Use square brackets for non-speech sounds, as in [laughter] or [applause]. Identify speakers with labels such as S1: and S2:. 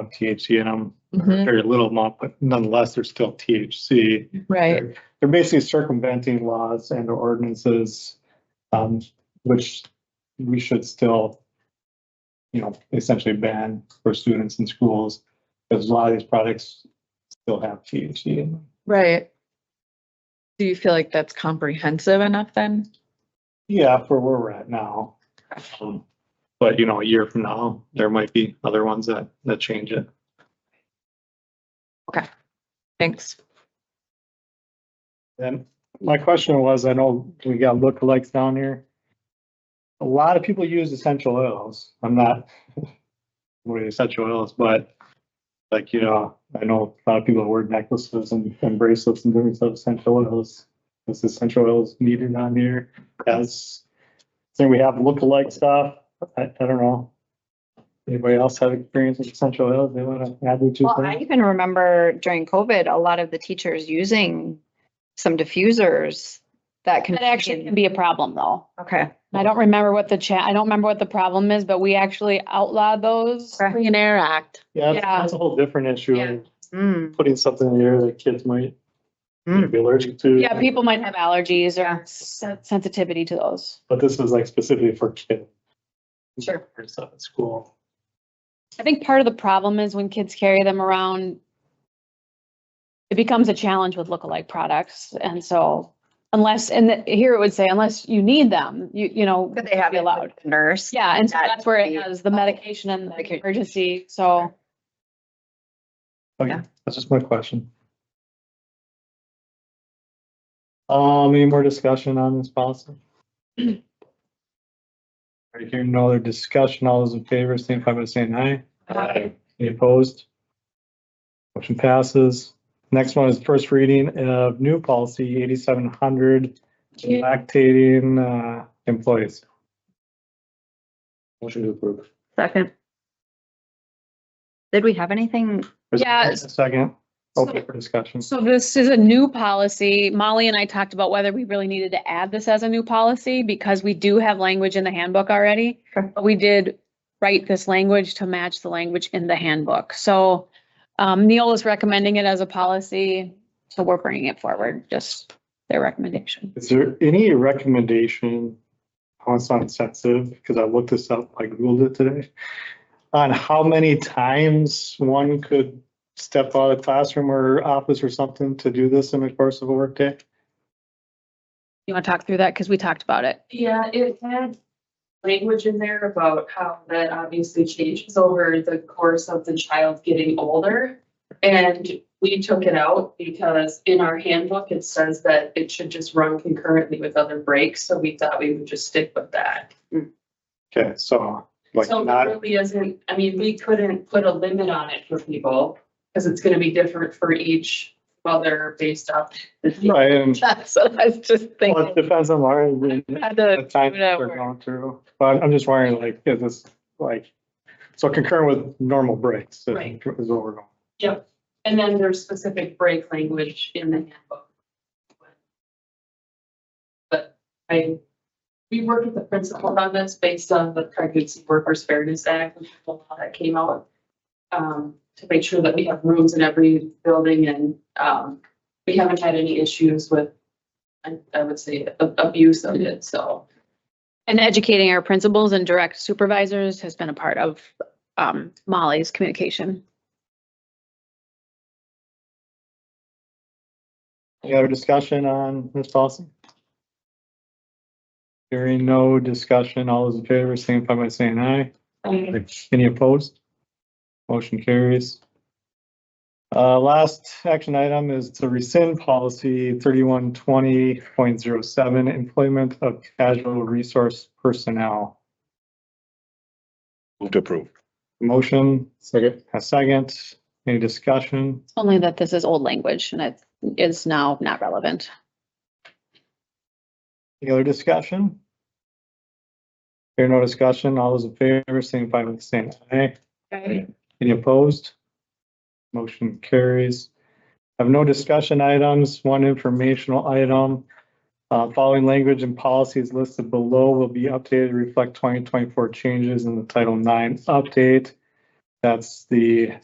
S1: of THC in them,
S2: Mhm,
S1: very little amount, but nonetheless, there's still THC.
S2: Right,
S1: They're basically circumventing laws and ordinances, um, which we should still, you know, essentially ban for students in schools, because a lot of these products still have THC in them.
S2: right. Do you feel like that's comprehensive enough then?
S1: Yeah, for where we're at now. Um, But, you know, a year from now, there might be other ones that, that change it.
S2: Thanks. [laughs]
S1: And my question was, I know we got lookalikes down here. A lot of people use essential oils. I'm not [laughs] with essential oils, but like, you know, I know a lot of people wear necklaces and and bracelets and different stuff, essential oils. Is essential oils needed on here as, so we have lookalike stuff. I, I don't know. Anybody else have experience with essential oils? They wanna add their two
S3: Well, I
S1: cents?
S3: even remember during COVID, a lot of the teachers using some diffusers that can.
S4: That actually can be a problem though.
S3: Okay,
S4: I don't remember what the chat, I don't remember what the problem is, but we actually outlawed those.
S3: Okay.
S2: Clean Air Act.
S1: Yeah, that's-
S4: yeah.
S1: that's a whole different issue.
S4: Yeah.
S3: mm,
S1: putting something in the air that kids might
S3: Mm.
S1: be allergic to.
S4: Yeah, people might have allergies
S3: Yeah.
S4: or sen- sensitivity to those.
S1: But this is like specifically for kids.
S4: Sure.
S1: For Stuff at school.
S4: I think part of the problem is when kids carry them around, it becomes a challenge with lookalike products. And so unless, and the- here it would say unless you need them, you, you know.
S3: could they have
S4: be
S3: it
S4: allowed?
S3: allowed nurse?
S4: Yeah, and so
S3: That
S4: that's where it
S3: would be-
S4: has the medication and the
S3: Medication.
S4: emergency, so.
S1: Okay,
S3: Yeah.
S1: that's just my question. Um, any more discussion on this policy? Are you hearing no other discussion? All those in favor, signify by saying aye.
S3: Aye.
S1: Any opposed? Motion passes. Next one is first reading of new policy eighty-seven hundred, lactating, uh, employees. Motion to approve.
S3: Second. Did we have anything?
S1: There's a
S4: Yeah.
S1: Second, open for discussion.
S4: So this is a new policy. Molly and I talked about whether we really needed to add this as a new policy because we do have language in the handbook already.
S3: Sure.
S4: But we did write this language to match the language in the handbook. So um, Neil is recommending it as a policy, so we're bringing it forward, just their recommendation.
S1: Is there any recommendation, how it's not sensitive, because I looked this up, I Googled it today, on how many times one could step out of the classroom or office or something to do this in the course of a workday?
S4: You want to talk through that? Because we talked about it.
S5: Yeah, it had language in there about how that obviously changes over the course of the child getting older. And we took it out because in our handbook, it says that it should just run concurrently with other breaks, so we thought we would just stick with that.
S1: Okay, so like
S5: So
S1: not,
S5: it really isn't, I mean, we couldn't put a limit on it for people, because it's gonna be different for each mother based off. the-
S1: right, and
S2: That's what I was just
S1: well,
S2: thinking.
S1: it depends on Lauren. and
S2: Had
S1: The
S2: to
S1: time
S2: do that
S1: they're
S2: work.
S1: going through, but I'm just wondering like, is this like, so concurrent with normal breaks? is-
S5: Right.
S1: Is what we're going.
S5: Yep, and then there's specific break language in the handbook. But I, we worked with the principal on this based on the Pregnancy Workers Fairness Act, which is the law that came out. Um, to make sure that we have rooms in every building and, um, we haven't had any issues with, I, I would say, a- abuse of it, so.
S4: And educating our principals and direct supervisors has been a part of um, Molly's communication.
S1: Any other discussion on this policy? Hearing no discussion, all those in favor, signify by saying aye.
S5: um,
S1: Any opposed? Motion carries. Uh, last action item is to rescind policy thirty-one twenty point zero seven, employment of casual resource personnel.
S6: Move to approve.
S1: Motion. Second. A second. Any discussion?
S4: Only that this is old language and it is now not relevant.
S1: Any other discussion? Hear no discussion, all those in favor, signify by saying aye.
S2: Aye.
S1: Any opposed? Motion carries. Have no discussion items, one informational item. Uh, following language and policies listed below will be updated to reflect twenty twenty-four changes in the Title IX update. That's the